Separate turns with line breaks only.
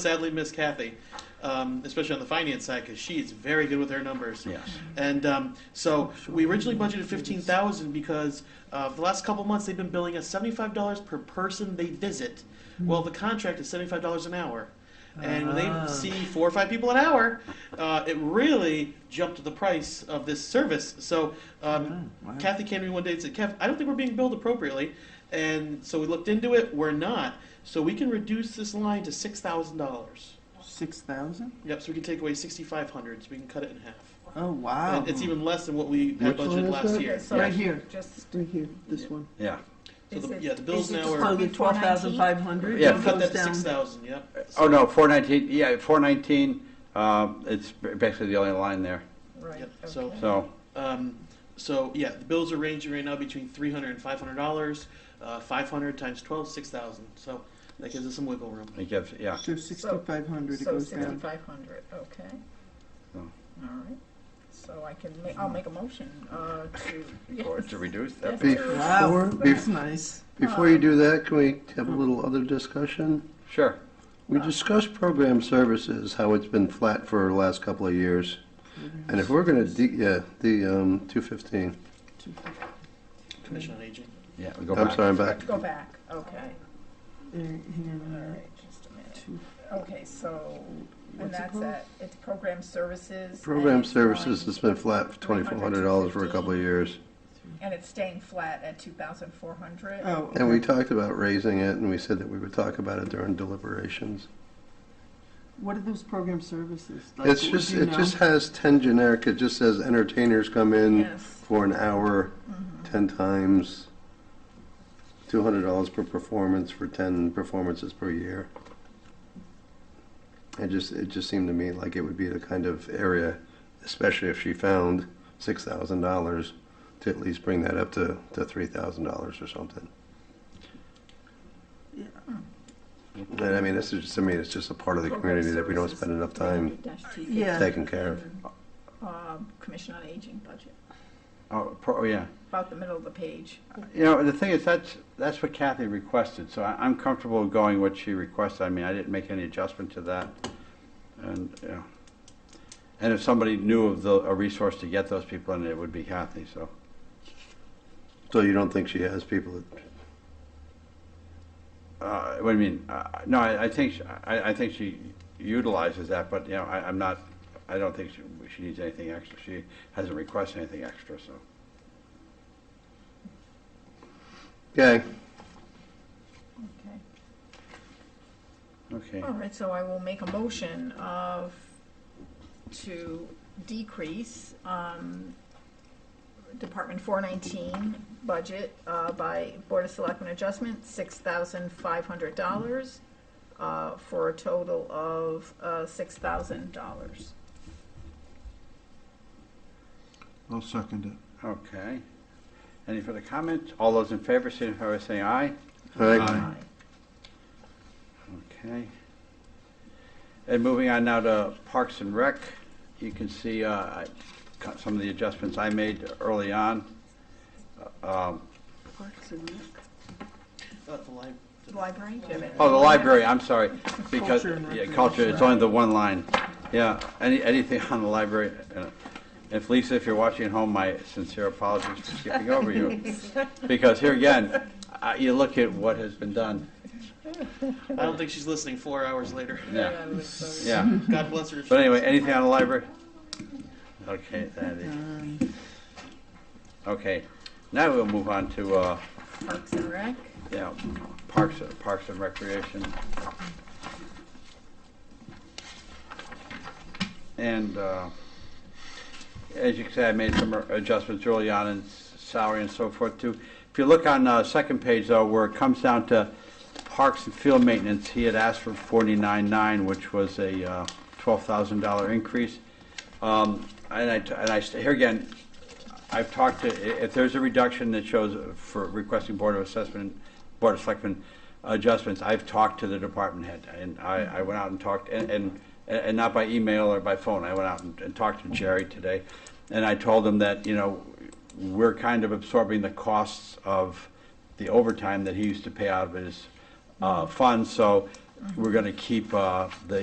sadly miss Kathy, um, especially on the finance side, because she is very good with her numbers.
Yes.
And um, so we originally budgeted fifteen thousand because uh, for the last couple months they've been billing us seventy-five dollars per person they visit. Well, the contract is seventy-five dollars an hour, and when
Hmm. Ah.
they see four or five people an hour, uh, it really jumped the price of this service. So um,
Oh, wow.
Kathy came to me one day and said, "Kev, I don't think we're being billed appropriately," and so we looked into it. We're not. So we can reduce this line to six thousand dollars.
Six thousand?
Yep. So we can take away sixty-five hundred. So we can cut it in half.
Oh wow!
And it's even less than what we had
Which line
budgeted
is
last
that?
year.
Yes.
right here.
Just,
Right here, this one.
Yeah,
So
Is
the,
it-
yeah, the bills
is it
now
just
are.
Oh, the
Before
twelve
19?
thousand five hundred.
Yeah.
Cut that to six thousand, yep.
oh no, four nineteen, yeah, four nineteen, um, it's basically the only line there,
right,
Yep, so-
okay.
so,
Um, so, yeah, the bills are ranging right now between three hundred and five hundred dollars, uh, five hundred times twelve, six thousand, so that gives us some wiggle room.
it gives, yeah.
So sixty-five hundred it
So
goes down.
sixty-five hundred, okay.
Oh.
All right, so I can ma, I'll make a motion, uh, to,
Or
yes.
to reduce that,
Yes, to-
Wow,
Before-
that's nice.
Before you do that, can we have a little other discussion?
sure,
We discussed program services, how it's been flat for the last couple of years. And if we're gonna, de- yeah, the, um, two fifteen,
Commission on Aging.
yeah, we go back.
I'm sorry, I'm back.
Go back, okay,
There, here,
all
there.
right, just a minute.
Two.
Okay, so, and
What's it
that's
called?
at, it's program services. and
Program
it's going-
services has been flat for twenty-four hundred dollars for a couple of years.
And it's staying flat at two thousand four hundred?
Oh,
And we talked about raising it, and we said that we would talk about it during deliberations.
what are those program services? Like,
It's
do
just,
you
it
know?
just has ten generic, it just says entertainers come in
Yes,
for an hour,
mhm,
ten times, two hundred dollars per performance for ten performances per year. It just, it just seemed to me like it would be the kind of area, especially if she found six thousand dollars, to at least bring that up to, to three thousand dollars or something.
Yeah.
And I mean, this is, just to me, it's just a part of the
Program
community that we don't
services.
spend enough time
300-250.
Yeah.
taking care of.
Um, Commission on Aging budget,
Oh, pro, oh, yeah,
about the middle of the page.
you know, the thing is, that's, that's what Kathy requested, so I, I'm comfortable going what she requested, I mean, I didn't make any adjustment to that, and, you know. And if somebody knew of the, a resource to get those people in, it would be Kathy, so,
So you don't think she has people that,
uh, what do you mean, uh, no, I, I think, she- I, I think she utilizes that, but, you know, I, I'm not, I don't think she, she needs anything extra, she hasn't requested anything extra, so.
okay,
Okay,
Okay,
all right, so I will make a motion of, to decrease, um, Department four nineteen budget, uh, by Board of Selectmen adjustment, six thousand five hundred dollars, uh, for a total of, uh, six thousand dollars.
I'll second it.
okay. Any further comments? All those in favor, signify by saying aye.
all right.
Aye. Okay. And moving on now to Parks and Rec, you can see uh, I cut some of the adjustments I made early on. Um,
Parks and Rec.
Uh, the li-
The library, do you have it?
Oh, the library, I'm sorry, because,
Culture and
yeah,
recreation.
culture, it's only the one line. Yeah, any, anything on the library. uh, If Lisa, if you're watching at home, my sincere apologies for skipping over you. Because here again, I- you look at what has been done.
I don't think she's listening four hours later.
Yeah,
I would say-
yeah.
God bless her.
But anyway, anything on the library? Okay, that is,
Um,
okay. Now we'll move on to, uh,
Parks and Rec,
yeah, Parks, Parks and Recreation. And, uh, as you can see, I made some adjustments early on in s- salary and so forth too. If you look on, uh, second page though, where it comes down to Parks and Field Maintenance, he had asked for forty-nine-nine, which was a, uh, twelve thousand dollar increase. Um, and I, and I, st- here again, I've talked to, i- if there's a reduction that shows for requesting Board of Assessment, Board of Selectmen adjustments, I've talked to the department head, and I, I went out and talked, and, and, and not by email or by phone, I went out and, and talked to Jerry today, and I told him that, you know, we're kind of absorbing the costs of the overtime that he used to pay out of his, uh, funds, so we're gonna keep uh, the